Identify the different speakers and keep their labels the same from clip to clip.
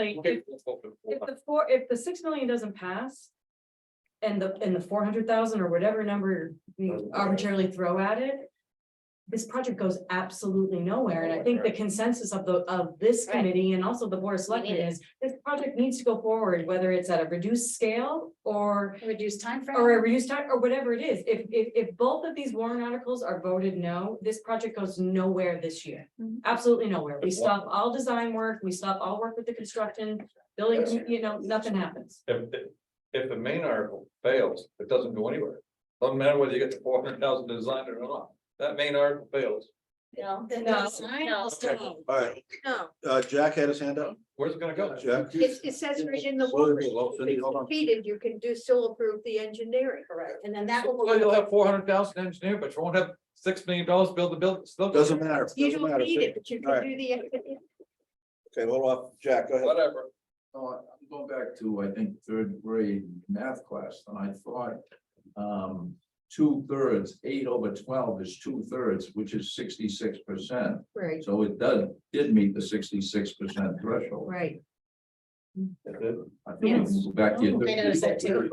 Speaker 1: Like, if, if the four, if the six million doesn't pass. And the, and the four hundred thousand or whatever number we arbitrarily throw at it. This project goes absolutely nowhere, and I think the consensus of the, of this
Speaker 2: Right.
Speaker 1: committee and also the board of selectmen
Speaker 2: it.
Speaker 1: is. This project needs to go forward, whether it's at a reduced scale or,
Speaker 2: Reduced timeframe?
Speaker 1: or a reduced time, or whatever it is. If, if, if both of these warrant articles are voted no, this project goes nowhere this year.
Speaker 2: Mhm.
Speaker 1: Absolutely nowhere. We
Speaker 3: If what?
Speaker 1: stop all design work, we stop all work with the construction, building, you know, nothing happens.
Speaker 3: If, the- if the main article fails, it doesn't go anywhere. Doesn't matter whether you get the four hundred thousand designed or not, that main article fails,
Speaker 2: No.
Speaker 1: No.
Speaker 2: No.
Speaker 4: All right,
Speaker 5: No,
Speaker 4: uh, Jack had his hand up.
Speaker 3: where's it gonna go?
Speaker 4: Jack?
Speaker 5: it, it says right in the
Speaker 4: Slow
Speaker 5: warrant,
Speaker 4: down, slow down, hold on.
Speaker 5: repeated, you can do still approve the engineering. Correct. And then that
Speaker 3: Well, you'll
Speaker 5: will.
Speaker 3: have four hundred thousand engineer, but you won't have six million dollars to build the building, still.
Speaker 4: Doesn't matter,
Speaker 5: You
Speaker 4: doesn't
Speaker 5: don't
Speaker 4: matter.
Speaker 5: need it,
Speaker 4: Okay,
Speaker 5: but you
Speaker 4: All
Speaker 5: can
Speaker 4: right.
Speaker 5: do the, engineering.
Speaker 4: hold off, Jack, go ahead.
Speaker 3: Whatever,
Speaker 6: No, I- I'm going back to, I think, third grade math class, and I thought um two thirds, eight over twelve is two thirds, which is sixty-six percent.
Speaker 5: right,
Speaker 6: So it does, did meet the sixty-six percent threshold.
Speaker 5: right.
Speaker 6: I think we can go back to. your-
Speaker 2: I noticed that too.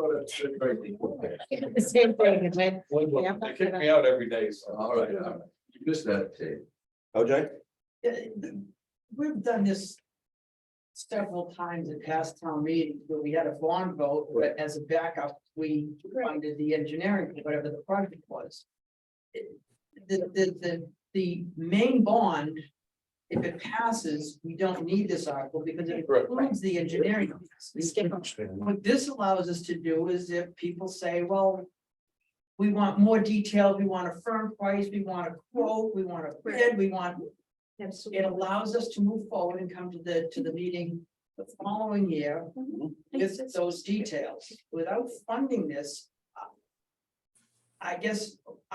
Speaker 2: The same thing, right?
Speaker 3: they kick me out every day, so.
Speaker 6: All right, all right. you missed that, Dave.
Speaker 4: OJ?
Speaker 7: Yeah, Uh, the- We've done this several times in past town meetings where we had a bond vote, but as a backup, we funded the engineering, for whatever the project was. It- The, the, the, the main bond, if it passes, we don't need this article because it
Speaker 3: Right.
Speaker 7: includes the engineering.
Speaker 2: We skip them.
Speaker 7: What this allows us to do is if people say, well. We want more detail, we want a firm price, we want a quote, we want a bid, we want it
Speaker 5: Absolutely.
Speaker 7: allows us to move forward and come to the, to the meeting the following year with those details. Without funding this, uh, I guess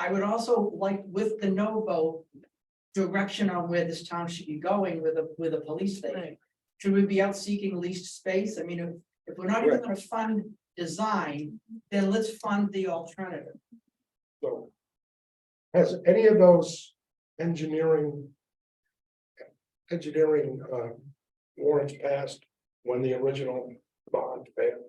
Speaker 7: I would also like with the no vote, direction on where this town should be going with a, with a police station.
Speaker 5: Right.
Speaker 7: Should we be out seeking leased space? I mean, if, if we're not even gonna fund design, then let's fund the alternative.
Speaker 8: So. Has any of those engineering. Engineering uh warrants passed when the original bond failed?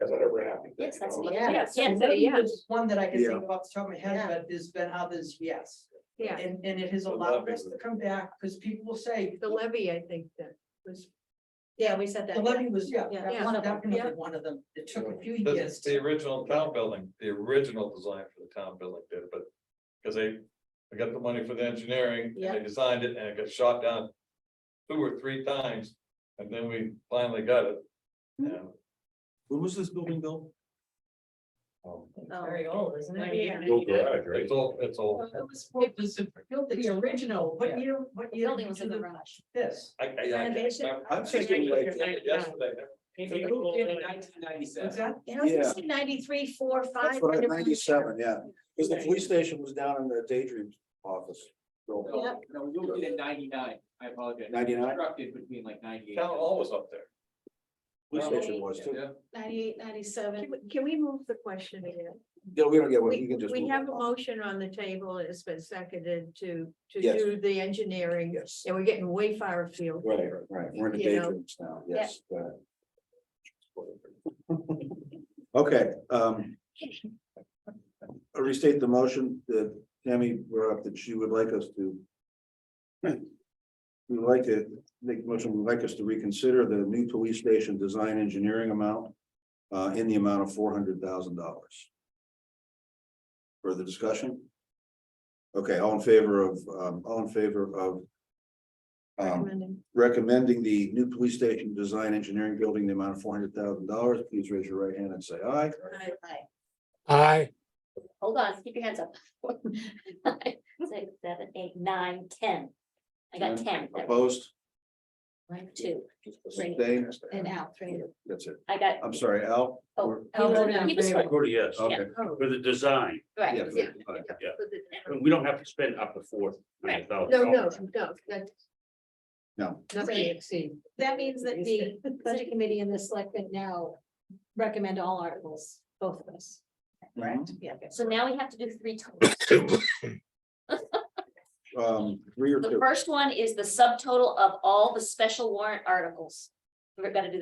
Speaker 8: Has that ever happened?
Speaker 2: Yes, that's-
Speaker 8: No.
Speaker 2: Yeah.
Speaker 5: Yes,
Speaker 2: Yeah,
Speaker 5: so, yeah,
Speaker 7: There's One that I can
Speaker 4: Yeah.
Speaker 7: think of off the top of my head,
Speaker 5: Yeah.
Speaker 7: but there's been others, yes.
Speaker 5: yeah,
Speaker 7: And, and it has
Speaker 3: The
Speaker 7: allowed
Speaker 3: levy
Speaker 7: us to come back, because people will say,
Speaker 5: the levy, I think that was,
Speaker 2: Yeah, we said
Speaker 7: the
Speaker 2: that.
Speaker 7: levy was, yeah,
Speaker 2: Yeah, one
Speaker 7: that was
Speaker 2: of them,
Speaker 7: definitely
Speaker 5: yeah.
Speaker 7: one of them. It took a few
Speaker 3: That's
Speaker 7: years.
Speaker 3: the original town building, the original design for the town building did, but, cause they, they got the money for the engineering, and they designed it, and it got shot down. Two or three times, and then we finally got it. And,
Speaker 4: When was this building built?
Speaker 3: um,
Speaker 1: Very old, isn't it?
Speaker 2: Yeah.
Speaker 3: It's all, it's all,
Speaker 7: It was, it was the- the original, what year, what year?
Speaker 2: Building was in
Speaker 7: did
Speaker 2: the
Speaker 7: you do
Speaker 2: rush.
Speaker 7: This.
Speaker 3: I, I, I can't
Speaker 2: Renovation?
Speaker 3: remember.
Speaker 4: I'm thinking like-
Speaker 3: Yesterday,
Speaker 7: What's that?
Speaker 2: You know, it's
Speaker 4: Yeah.
Speaker 2: like ninety-three, four, five.
Speaker 4: That's what,
Speaker 2: right
Speaker 4: I-
Speaker 2: around there.
Speaker 4: ninety-seven, yeah, because the police station was down in the daydream office. building.
Speaker 2: Yep.
Speaker 9: No, you were at ninety-nine, I apologize.
Speaker 4: 99?
Speaker 9: Constructed between like ninety-eight.
Speaker 3: town hall was up there.
Speaker 4: Police station was too.
Speaker 3: Yeah.
Speaker 2: Ninety-eight, ninety-seven.
Speaker 5: Can we- can we move the question again?
Speaker 4: Yeah, we don't get one, you
Speaker 5: We,
Speaker 4: can just.
Speaker 5: we
Speaker 4: move
Speaker 5: have a
Speaker 4: on.
Speaker 5: motion on the table, and it's been seconded to, to
Speaker 4: Yes.
Speaker 5: do the engineering,
Speaker 4: Yes,
Speaker 5: and we're getting way far afield.
Speaker 4: right, right, we're in the
Speaker 5: You know.
Speaker 4: daydreams now, yes. go ahead. Okay, um. I Restate the motion that Tammy brought up that she would like us to. We'd like to make a motion, we'd like us to reconsider the new police station design engineering amount. Uh, in the amount of four hundred thousand dollars. Further discussion? Okay, all in favor of, um, all in favor of. Um,
Speaker 5: Recommending.
Speaker 4: recommending the new police station design engineering building, the amount of four hundred thousand dollars, please raise your right hand and say aye.
Speaker 5: Aye.
Speaker 8: Aye.
Speaker 2: Hold on, keep your hands up. Six, seven, eight, nine, ten. I got ten. That was
Speaker 4: Opposed?
Speaker 2: One, two, Three.
Speaker 4: Abstained?
Speaker 2: and out, three.
Speaker 4: That's it.
Speaker 2: I got,
Speaker 4: I'm sorry, Al?
Speaker 2: oh.
Speaker 1: I'll
Speaker 2: you
Speaker 1: vote
Speaker 2: know,
Speaker 1: in
Speaker 2: he was
Speaker 1: favor.
Speaker 2: right,
Speaker 10: Go to yes,
Speaker 4: Okay.
Speaker 10: for the design,
Speaker 2: Right,
Speaker 4: Yeah.
Speaker 2: yeah,
Speaker 10: yeah,
Speaker 5: For the-
Speaker 10: and we don't have to spend up to four hundred thousand.
Speaker 5: No, no, no, that's
Speaker 4: No,
Speaker 5: nothing
Speaker 2: Great.
Speaker 5: exceed.
Speaker 2: That means that the budget committee and the selectmen now recommend all articles, both of us.
Speaker 4: Correct.
Speaker 2: Yeah. So now we have to do three totals.
Speaker 4: um, three or
Speaker 2: The
Speaker 4: two. Um,
Speaker 2: first one is the subtotal of all the special warrant articles.
Speaker 1: we're gonna do